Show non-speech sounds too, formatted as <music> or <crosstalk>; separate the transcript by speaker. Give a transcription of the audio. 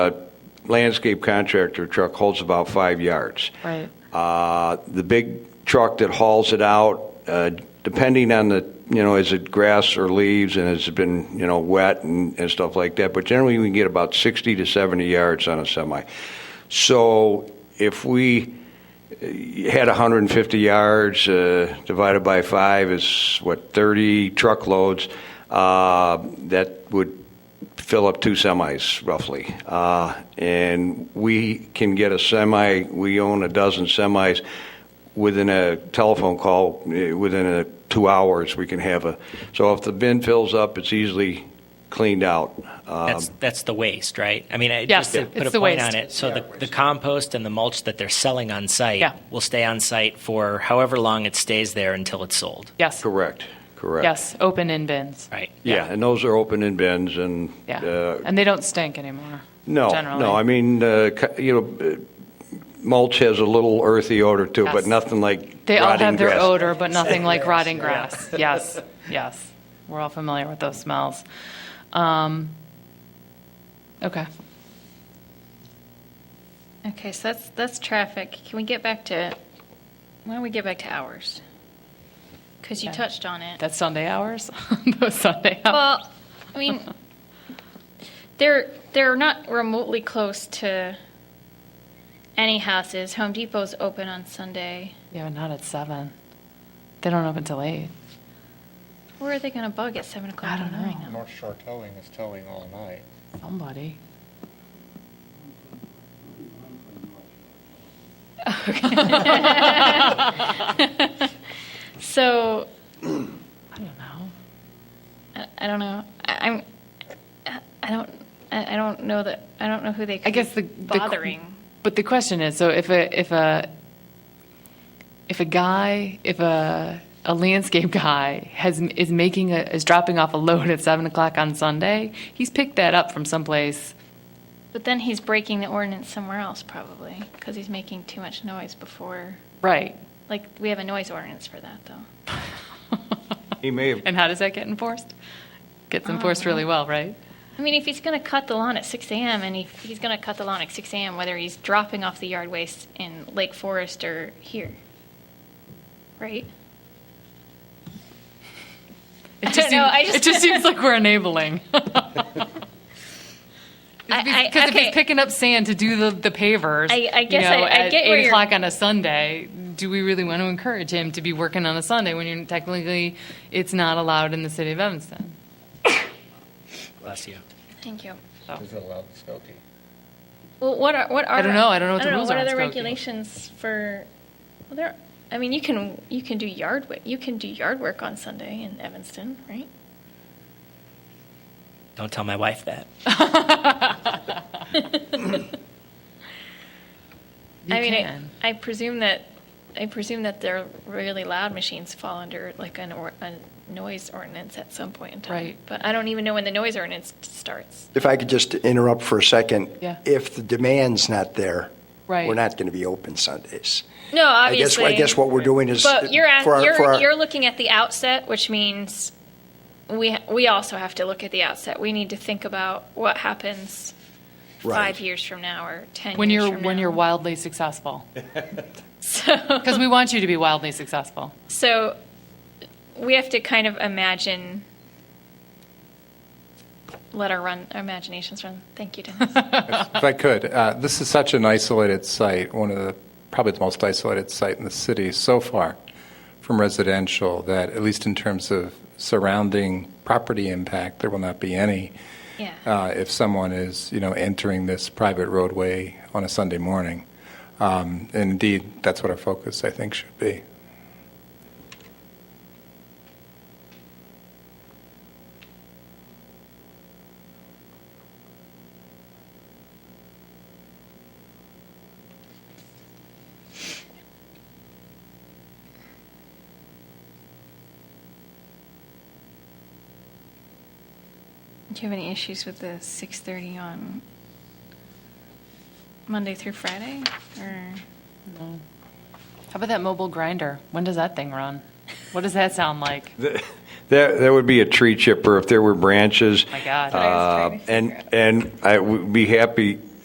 Speaker 1: landscape contractor truck holds about five yards.
Speaker 2: Right.
Speaker 1: Uh, The big truck that hauls it out, uh, depending on the, you know, is it grass or leaves, and has it been, you know, wet and and stuff like that, but generally, we can get about 60 to 70 yards on a semi. So if we uh, had 150 yards, uh, divided by five is, what, 30 truckloads, uh, that would fill up two semis roughly. Uh, and we can get a semi, we own a dozen semis. Within a telephone call, eh, within a, two hours, we can have a. So if the bin fills up, it's easily cleaned out. Uh,
Speaker 3: That's, that's the waste, right? I mean, I-
Speaker 2: Yes,
Speaker 3: just to
Speaker 2: Um, yeah.
Speaker 3: put
Speaker 2: it's
Speaker 3: a
Speaker 2: the
Speaker 3: point
Speaker 2: waste.
Speaker 3: on it, so the, the compost and the mulch that they're selling on
Speaker 2: Yeah.
Speaker 3: site will stay on site for however long it stays there until it's sold,
Speaker 2: Yes.
Speaker 1: Correct, correct.
Speaker 2: Yes, open in bins.
Speaker 3: right?
Speaker 1: Yeah, and those are open in bins and.
Speaker 2: Yeah.
Speaker 1: uh,
Speaker 2: And they don't stink anymore.
Speaker 1: No,
Speaker 2: generally.
Speaker 1: no, I mean, uh, cu- you know, uh, mulch has a little earthy odor too, but
Speaker 2: Yes.
Speaker 1: nothing like
Speaker 2: They all
Speaker 1: rotting
Speaker 2: have their
Speaker 1: grass.
Speaker 2: odor, but nothing like rotting grass.
Speaker 4: <laughs>
Speaker 2: Yes, yes. We're all familiar with those smells. Um, okay.
Speaker 5: Okay, so that's, that's traffic. Can we get back to, why don't we get back to hours? Because you
Speaker 2: Okay.
Speaker 5: touched on it.
Speaker 2: That's Sunday hours? <laughs> those Sunday hours?
Speaker 5: Well, I mean, they're, they're not remotely close to any houses. Home Depot's open on Sunday.
Speaker 2: Yeah, but not at 7. They don't open till 8.
Speaker 5: Where are they going to bug at 7 o'clock
Speaker 2: I
Speaker 5: in
Speaker 2: don't
Speaker 5: the morning?
Speaker 2: know.
Speaker 4: North Shore Towing is towing all night.
Speaker 2: Somebody.
Speaker 5: So,
Speaker 2: I don't know.
Speaker 5: I I don't know. I- I'm, I- I don't, I I don't know that, I don't know who they
Speaker 2: I
Speaker 5: could
Speaker 2: guess the
Speaker 5: be
Speaker 2: the-
Speaker 5: bothering.
Speaker 2: But the question is, so if a if a if a guy, if a a landscape <laughs> guy has is making a, is dropping off a load at seven o'clock on Sunday, he's picked that up from someplace.
Speaker 5: But then he's breaking the ordinance somewhere else probably, because he's making too much noise before,
Speaker 2: Right.
Speaker 5: like, we have a noise ordinance for that though.
Speaker 1: He may
Speaker 2: <laughs>
Speaker 1: have
Speaker 2: And how does that get enforced? Gets enforced really well, right?
Speaker 5: I mean, if he's going to cut the lawn at 6 a.m. and he, he's going to cut the lawn at 6 a.m., whether he's dropping off the yard waste in Lake Forest or here, right?
Speaker 2: It
Speaker 5: don't know,
Speaker 2: seems,
Speaker 5: I just-
Speaker 2: it
Speaker 5: <laughs>
Speaker 2: just seems like we're enabling. <laughs>
Speaker 5: I- I-
Speaker 2: Because if
Speaker 5: okay.
Speaker 2: he's picking up sand to do the, the pavers,
Speaker 5: I- I guess
Speaker 2: you know,
Speaker 5: I- I
Speaker 2: at
Speaker 5: get where
Speaker 2: eight
Speaker 5: you're-
Speaker 2: o'clock on a Sunday, do we really want to encourage him to be working on a Sunday when you're technically it's not allowed in the city of Evanston?
Speaker 3: Bless you.
Speaker 5: Thank you.
Speaker 4: Is it allowed in Skokie?
Speaker 5: Well, what are what are
Speaker 2: don't know. I don't know what the rules
Speaker 5: what
Speaker 2: are
Speaker 5: are
Speaker 2: on
Speaker 5: the
Speaker 2: Skokie.
Speaker 5: regulations for? Well, there. I mean, you can you can do yard wa- you can do yard work on Sunday in Evanston, right?
Speaker 3: Don't tell my wife that.
Speaker 2: You
Speaker 5: I mean, I,
Speaker 2: can.
Speaker 5: I presume that I presume that their really loud machines fall under like an or, a noise ordinance at some point in time.
Speaker 2: Right.
Speaker 5: But I don't even know when the noise ordinance starts.
Speaker 6: If I could just interrupt for a second.
Speaker 2: Yeah.
Speaker 6: If the demand's not there.
Speaker 2: Right.
Speaker 6: We're not going to be open Sundays.
Speaker 5: No,
Speaker 6: I guess,
Speaker 5: obviously.
Speaker 6: I guess what we're doing is.
Speaker 5: But you're at,
Speaker 6: for our-
Speaker 5: you're
Speaker 6: for our-
Speaker 5: you're looking at the outset, which means we we also have to look at the outset. We need to think about what happens
Speaker 6: Right.
Speaker 5: five years from now or ten.
Speaker 2: When
Speaker 5: years
Speaker 2: you're
Speaker 5: from
Speaker 2: when
Speaker 5: now.
Speaker 2: you're wildly successful,
Speaker 5: <laughs>
Speaker 2: because we want you to be wildly successful.
Speaker 5: So we have to kind of imagine. Let our run our imaginations run. Thank you, <laughs> Dennis.
Speaker 4: If I could, uh, this is such an isolated site, one of the, probably the most isolated site in the city so far from residential, that at least in terms of surrounding property impact, there will not be any
Speaker 5: yeah.
Speaker 4: uh, if someone is, you know, entering this private roadway on a Sunday morning. Um, And indeed, that's what our focus, I think, should be.
Speaker 5: Do you have any issues with the six thirty on Monday through Friday? Or
Speaker 2: How about that mobile grinder? When does that thing run? What does that sound like?
Speaker 1: That, that would be a tree chipper if there were branches.
Speaker 2: My God.
Speaker 1: Uh, And, and I would be happy